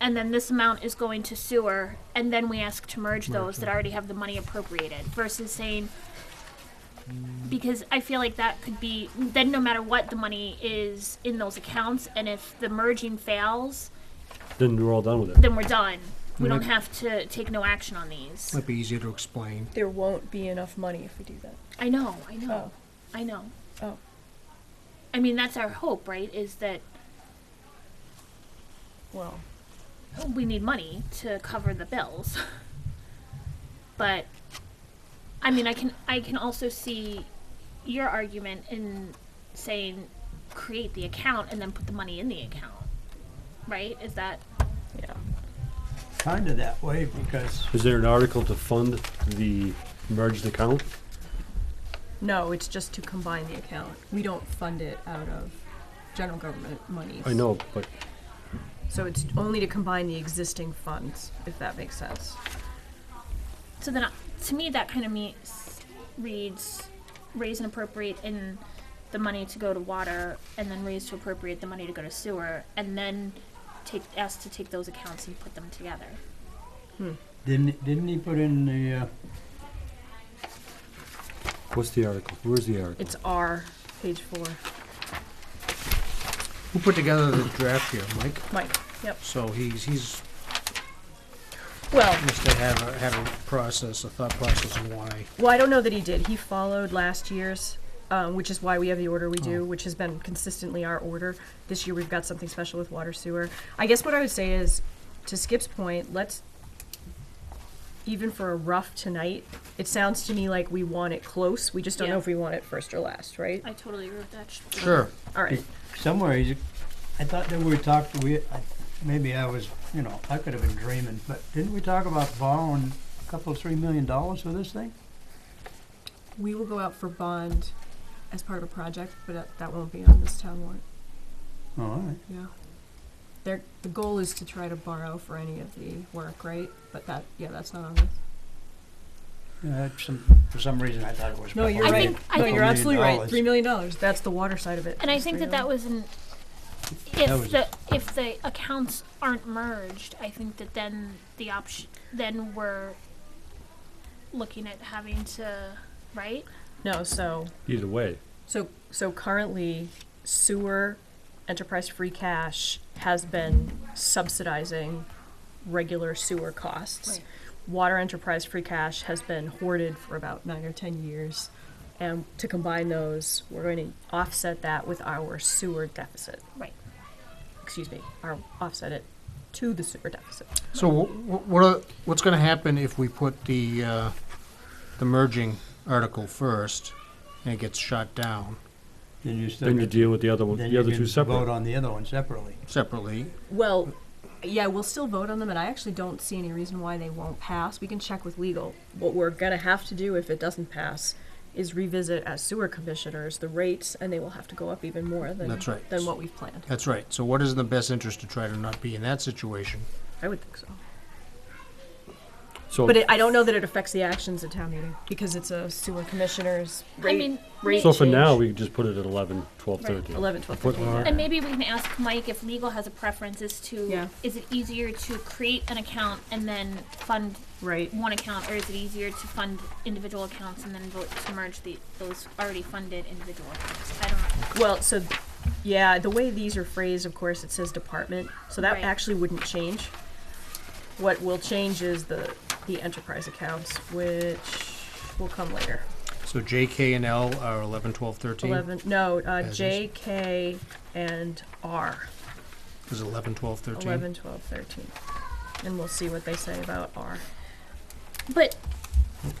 and then this amount is going to sewer, and then we ask to merge those that already have the money appropriated versus saying, because I feel like that could be, then no matter what, the money is in those accounts, and if the merging fails, Then we're all done with it. then we're done. We don't Right. have to take no action on these. Might be easier to explain. There won't be enough money if we do that. I know, I know, Oh. I know. Oh. I mean, that's our hope, right? Is that Well, we need money to cover the bills. but I mean, I can I can also see your argument in saying create the account and then put the money in the account. Right? Is that yeah. kind of that way because Is there an article to fund the merged account? No, it's just to combine the account. We don't fund it out of general government monies. I know, but So it's only to combine the existing funds, if that makes sense. so then I- to me that kind of means reads raise and appropriate in the money to go to water and then raise to appropriate the money to go to sewer and then take ask to take those accounts and put them together. didn't didn't he put in the uh, what's the article? Where's the article? It's R, page four. Who put together the draft here, Mike? Mike. Yep. So he's, he's, Well, must have had a, had a process, a thought process of why. well, I don't know that he did. He followed last year's, um, which is why we have the order we do, which has been consistently our order. This year we've got something special with water sewer. I guess what I would say is, to Skip's point, let's even for a rough tonight. It sounds to me like we want it close. We just don't Yeah. know if we want it first or last, right? I totally agree with that. Should- All right. somewhere? He's, I thought that we talked. We I, maybe I was you know I could have been dreaming, but didn't we talk about borrowing a couple three million dollars for this thing? We will go out for bond as part of a project, but that, that won't be on this town warrant. Oh, all right. Yeah. There, the goal is to try to borrow for any of the work, right? But that, yeah, that's not on this. Yeah, that's some, for some reason I thought it was. No, you're I borrowed. right. think- I no, think- you're absolutely right. $3 million. Three million dollars. That's the water side of it. And I It's think $3 that that million. was an, That if was- the, if the accounts aren't merged, I think that then the option, then we're looking at having to, right? no. So, Either way, so, so currently, sewer enterprise free cash has been subsidizing regular sewer costs. Right. Water enterprise free cash has been hoarded for about nine or ten years, and to combine those, we're going to offset that with our sewer deficit. Right. excuse me, or offset it to the super deficit. So wh- wh- what are, what's going to happen if we put the uh, the merging article first and it gets shot down Then you still. then you deal with the other one, then the other you two can Vote separate. on the other one separately. separately? Well, yeah, we'll still vote on them, and I actually don't see any reason why they won't pass. We can check with legal. What we're gonna have to do if it doesn't pass is revisit as sewer commissioners the rates, and they will have to go up even more than That's right. than what we've planned. That's right. So what is in the best interest to try to not be in that situation? I would think so. So, But it, I don't know that it affects the actions at town meeting because it's a sewer commissioners I rate. mean, rate so for now, change. we just put it at eleven, twelve, Right, thirteen. 11, 12, Put- 15. and maybe we can ask Mike if legal has a preference as Yeah. to, is it easier to create an account and then fund right? one account, or is it easier to fund individual accounts and then vote to merge the, those already funded individual accounts? I don't know. Well, so, yeah, the way these are phrased, of course, it says department, so that Right. actually wouldn't change. What will change is the, the enterprise accounts, which will come later. So J, K, and L are 11, 12, 13? Eleven, no, uh, As is. J, K, and R, Is it 11, 12, 13? eleven, twelve, thirteen. And we'll see what they say about R. But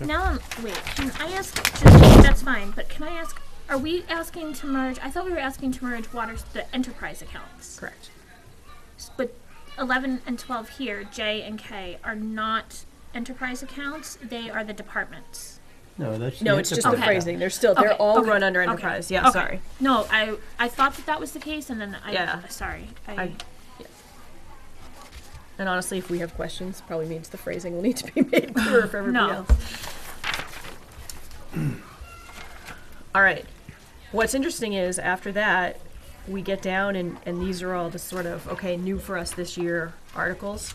now I'm wait. Can I ask? Just, that's fine. But can I ask? Are we asking to merge? I thought we were asking to merge water the enterprise accounts. Correct. But eleven and twelve here, J and K, are not enterprise accounts. They are the departments. No, that's. No, it's just the Okay. phrasing, they're still, they're Okay, all okay, run under okay, enterprise, yeah, okay. sorry. No, I I thought that that was the case, and then I Yeah. sorry. I, I- yeah. And honestly, if we have questions, probably means the phrasing will need to be made clearer for everybody No. else. All right. What's interesting is after that, we get down and, and these are all just sort of, okay, new for us this year articles.